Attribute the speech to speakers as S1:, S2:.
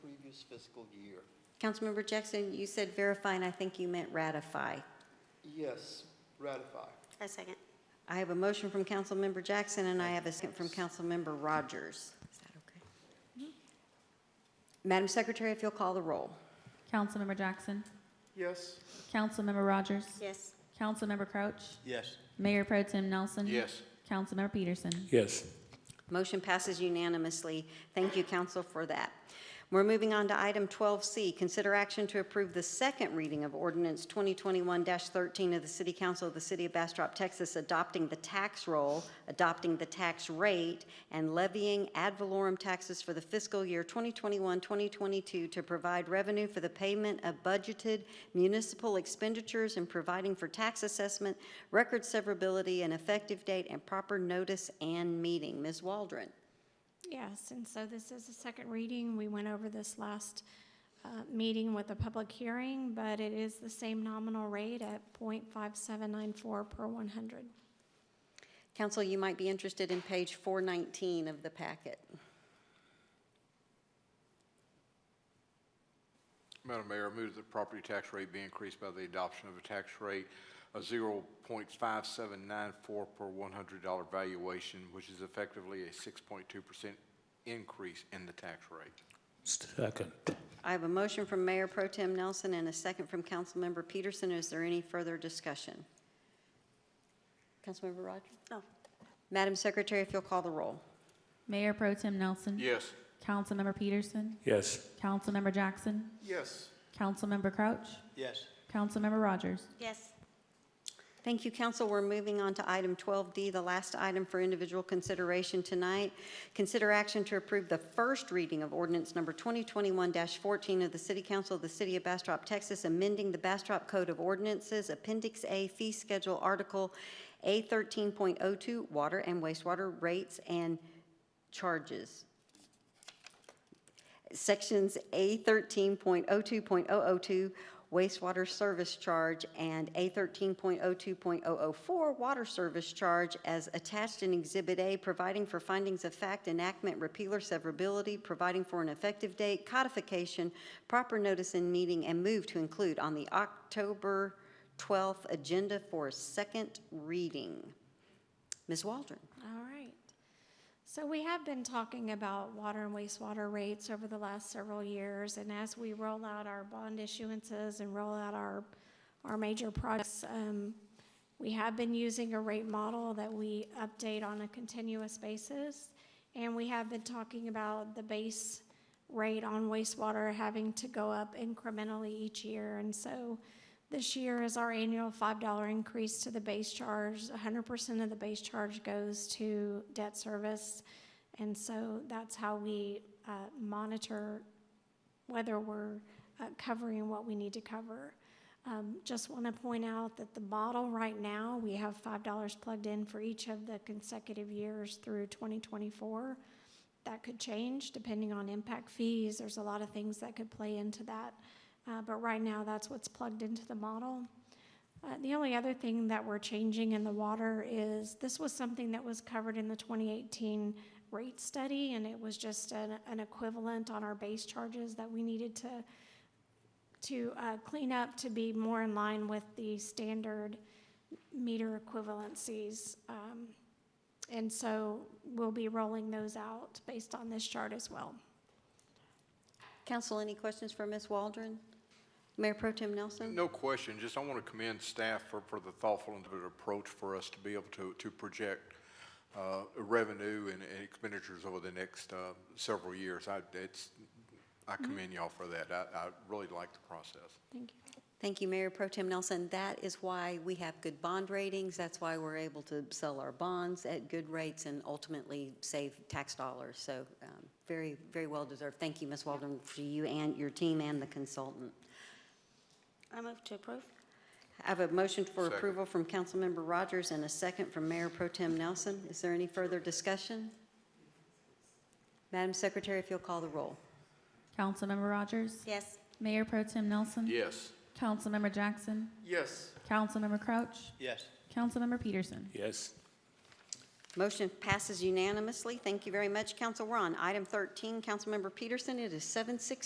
S1: previous fiscal year.
S2: Councilmember Jackson, you said verify, and I think you meant ratify.
S1: Yes, ratify.
S3: I second.
S2: I have a motion from Councilmember Jackson, and I have a second from Councilmember Rogers. Is that okay? Madam Secretary, if you'll call the roll.
S4: Councilmember Jackson.
S1: Yes.
S4: Councilmember Rogers.
S3: Yes.
S4: Councilmember Crouch.
S5: Yes.
S4: Mayor Pro Tim Nelson.
S5: Yes.
S4: Councilmember Peterson.
S6: yes,
S2: Motion passes unanimously. Thank you, council, for that. We're moving on to item 12C, consider action to approve the second reading of ordinance 2021-13 of the City Council of the City of Bastrop, Texas, adopting the tax roll, adopting the tax rate, and levying ad valorem taxes for the fiscal year 2021-2022 to provide revenue for the payment of budgeted municipal expenditures and providing for tax assessment, record severability, and effective date and proper notice and meeting. Ms. Waldron?
S7: Yes, and so this is the second reading. We went over this last uh, meeting with a public hearing, but it is the same nominal rate at .5794 per 100.
S2: Council, you might be interested in page 419 of the packet.
S8: Madam Mayor, I move that the property tax rate be increased by the adoption of a tax rate of zero point five seven nine four per one hundred dollar valuation, which is effectively a six point two percent increase in the tax rate.
S6: second,
S2: I have a motion from Mayor Pro Tem Nelson and a second from Councilmember Peterson. Is there any further discussion? Councilmember Rogers?
S3: Oh,
S2: Madam Secretary, if you'll call the roll.
S4: Mayor Pro Tim Nelson.
S8: Yes.
S4: Councilmember Peterson.
S6: yes,
S4: Councilmember Jackson.
S1: Yes.
S4: Councilmember Crouch.
S5: Yes.
S4: Councilmember Rogers.
S3: yes.
S2: Thank you, council. We're moving on to item 12D, the last item for individual consideration tonight. Consider action to approve the first reading of ordinance number 2021-14 of the City Council of the City of Bastrop, Texas, amending the Bastrop Code of Ordinances, Appendix A Fee Schedule, Article A13.02, Water and Wastewater Rates and Charges. Sections A thirteen point oh two point oh oh two wastewater service charge and A thirteen point oh two point oh oh four water service charge as attached in Exhibit A, providing for findings of fact, enactment, repealer severability, providing for an effective date, codification, proper notice in meeting, and move to include on the October twelfth agenda for a second reading. Ms. Waldron?
S7: All right. So we have been talking about water and wastewater rates over the last several years, and as we roll out our bond issuances and roll out our, our major projects, um, we have been using a rate model that we update on a continuous basis, and we have been talking about the base rate on wastewater having to go up incrementally each year, and so this year is our annual $5 increase to the base charge. 100% of the base charge goes to debt service. And so that's how we uh, monitor whether we're uh, covering what we need to cover. Um, Just want to point out that the model right now, we have $5 plugged in for each of the consecutive years through 2024. That could change depending on impact fees. There's a lot of things that could play into that. Uh, But right now, that's what's plugged into the model. Uh, The only other thing that we're changing in the water is, this was something that was covered in the 2018 rate study, and it was just an an equivalent on our base charges that we needed to, to uh, clean up to be more in line with the standard meter equivalencies. Um, And so we'll be rolling those out based on this chart as well.
S2: Council, any questions for Ms. Waldron? Mayor Pro Tem Nelson?
S8: No question, just I want to commend staff for, for the thoughtful and deliberate approach for us to be able to, to project uh, revenue and and expenditures over the next uh, several years. I, it's, I commend y'all for that. I, I really like the process.
S7: Thank you.
S2: Thank you, Mayor Pro Tem Nelson. That is why we have good bond ratings. That's why we're able to sell our bonds at good rates and ultimately save tax dollars. So um, very, very well deserved. Thank you, Ms. Waldron, for you and your team and the consultant.
S3: I move to approve.
S2: I have a motion for
S8: Second.
S2: approval from Councilmember Rogers and a second from Mayor Pro Tem Nelson. Is there any further discussion? Madam Secretary, if you'll call the roll.
S4: Councilmember Rogers.
S3: Yes.
S4: Mayor Pro Tim Nelson.
S8: Yes.
S4: Councilmember Jackson.
S1: Yes.
S4: Councilmember Crouch.
S5: Yes.
S4: Councilmember Peterson.
S6: yes.
S2: Motion passes unanimously. Thank you very much, Council. We're on item 13. Councilmember Peterson, it is 7:16.